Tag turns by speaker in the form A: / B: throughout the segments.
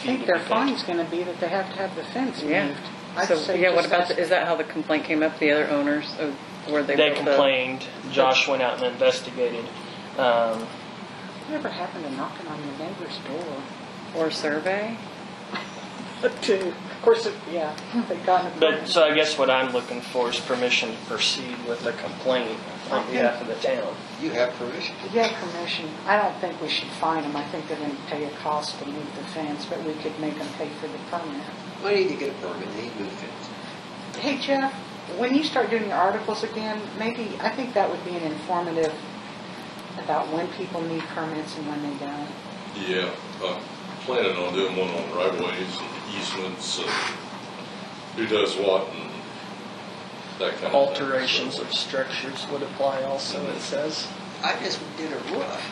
A: I think their fine's gonna be that they have to have the fence
B: Yeah.
A: moved. I'd
B: So,
A: say
B: yeah, what
A: just
B: about,
A: ask-
B: the- is that how the complaint came up, the other owners of where they
C: They
B: built the?
C: complained. Josh went out and investigated. Um,
A: Whatever happened to knocking on your neighbor's door?
B: Or survey?
A: To, uh, of course, it- yeah, they got it.
C: but so I guess what I'm looking for is permission to proceed with the complaint on behalf of the town.
D: You have permission.
A: If you have permission, I don't think we should fine them. I think they're gonna pay a cost to move the fence, but we could make them pay for the permit.
D: Why didn't you get a permit? They moved it.
A: Hey Jeff, when you start doing your articles again, maybe, I think that would be an informative about when people need permits and when they don't.
E: Yeah, I'm planning on doing one on right ways and easements and who does what and that kind of thing.
C: Alterations of structures would apply also, it says.
D: I just did a roof.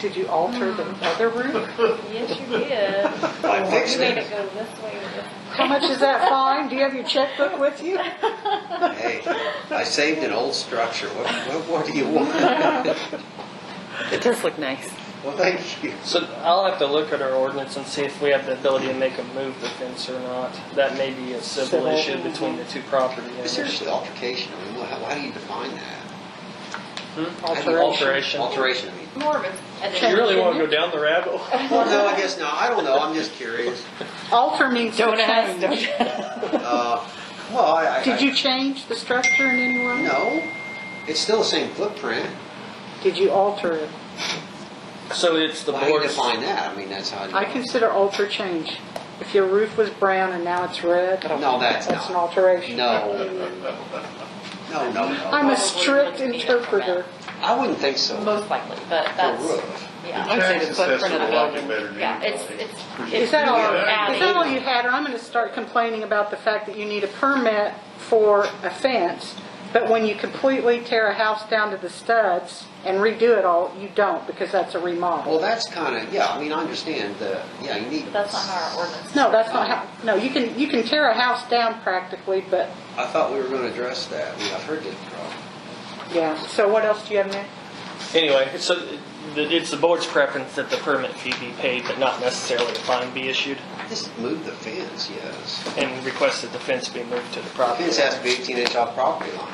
A: Did you alter the other roof?
F: Yes, you did.
A: Oh,
D: I fixed
F: You
D: it.
F: made it go this way. or this-
A: How much is that fine? Do you have your checkbook with you?
D: Hey, I saved an old structure. What, what, what do you want? Well,
B: It does look nice.
D: thank you.
C: So I'll have to look at our ordinance and see if we have the ability to make them move the fence or not. That may be a civil
A: Civil.
C: issue between the two property
D: But
C: owners.
D: seriously, altercation, I mean, wha- how, how do you define that?
C: Hmm? Alteration.
D: Alteration, I mean.
F: More of
C: You
F: a.
C: really want to go down the rabbit hole?
D: Well, no, I guess not. I don't know. I'm just curious.
A: Alter means to
B: Don't ask,
A: change.
D: Uh, well, I, I.
A: Did you change the structure in any way?
D: No. It's still the same footprint.
A: Did you alter it?
C: So it's the
D: Well, How do you
C: board's,
D: define that? I mean, that's how.
A: I consider alter change. If your roof was brown and now it's red,
D: No, that's
A: that's an
D: not.
A: alteration.
D: No. No, no,
A: I'm
D: no.
A: a strict interpreter.
D: I wouldn't think so.
F: Most likely, but
D: A
F: that's,
D: roof.
F: yeah.
B: I'd say the footprint of the building.
F: Yeah, it's, it's,
A: Is
F: it's
A: that all,
F: more
A: is that all
F: alley.
A: you had? Or I'm going to start complaining about the fact that you need a permit for a fence, but when you completely tear a house down to the studs and redo it all, you don't, because that's a remodel.
D: Well, that's kind of, yeah, I mean, I understand the, yeah, you need.
F: But that's not how our ordinance.
A: No, that's not how, no, you can, you can tear a house down practically, but,
D: I thought we were going to address that. I mean, I've heard this problem.
A: yeah. So what else do you have, Nick?
C: anyway, so the- it's the board's preference that the permit fee be paid, but not necessarily a fine be issued,
D: Just move the fence, yes.
C: and request that the fence be moved to the
D: The
C: property
D: fence has to be 18 inch off property line.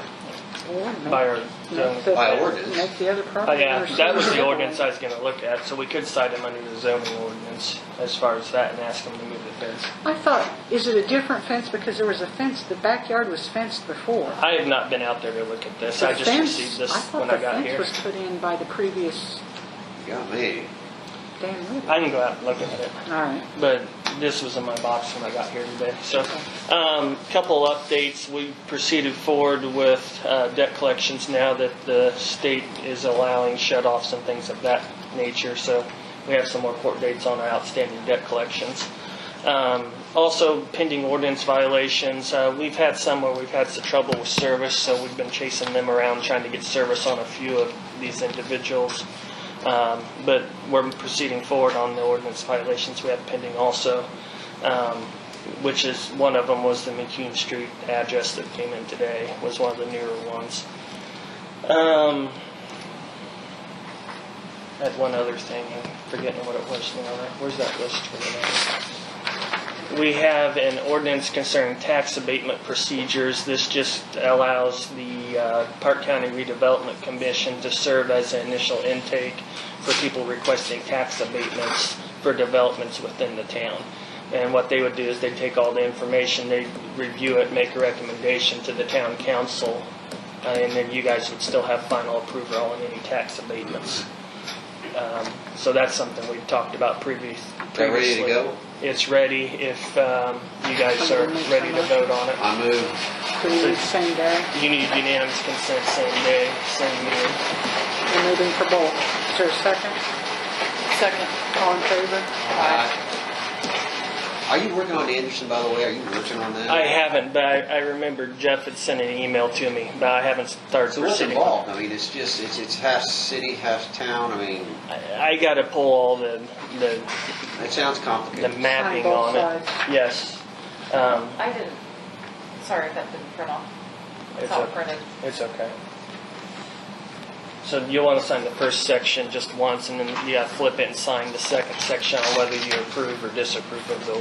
C: by our zoning.
D: By ordinance.
A: Make the other
C: Oh,
A: property.
C: yeah,
A: owners-
C: that was the ordinance I was gonna look at, so we could cite them under the zoning ordinance as far as that and ask them to move the fence.
A: I thought, is it a different fence? Because there was a fence, the backyard was fenced before.
C: I have not been out there to look at this, I
A: The
C: just
A: fence-
C: received this when I got
A: thought the
C: here.
A: fence was put in by the previous
D: You got me.
A: Dan Wood.
C: I can go out and look at it,
A: All right.
C: but this was in my box when I got here today, so. Um, couple updates, we proceeded forward with, uh, debt collections now that the state is allowing shut-offs and things of that nature, so we have some more court dates on our outstanding debt collections. Um, Also pending ordinance violations, uh, we've had some where we've had some trouble with service, so we've been chasing them around, trying to get service on a few of these individuals. Um, But we're proceeding forward on the ordinance violations we have pending also, um, which is, one of them was the McCune Street address that came in today, was one of the newer ones. Um, I had one other thing, I'm forgetting what it was now, where's that list for the next? We have an ordinance concerning tax abatement procedures. This just allows the uh, Park County Redevelopment Commission to serve as an initial intake for people requesting tax abatements for developments within the town. And what they would do is they'd take all the information, they'd review it, make a recommendation to the town council, uh, and then you guys would still have final approval on any tax abatements. Um, So that's something we've talked about previous-
D: They're ready
C: previously.
D: to go?
C: It's ready if um, you guys are ready to vote on it.
D: I move.
A: Can we do the same day?
C: You need unanimous consent same day, same meeting.
A: We're moving for both. Is there a second? Second. All in favor?
D: Are you working on Anderson, by the way? Are you working on that?
C: I haven't, but I I remember Jeff had sent an email to me, but I haven't started
D: So what's
C: proceeding.
D: involved? I mean, it's just, it's, it's half city, half town. I mean,
C: I I gotta pull all the, the
D: it sounds
C: the
D: complicated.
C: mapping
A: both
C: on it. Yes. Um,
F: I didn't, sorry if that didn't print off. It's
C: It's
F: not
C: okay.
F: printed.
C: It's okay. So you'll want to sign the first section just once, and then you gotta flip it and sign the second section on whether you approve or disapprove of the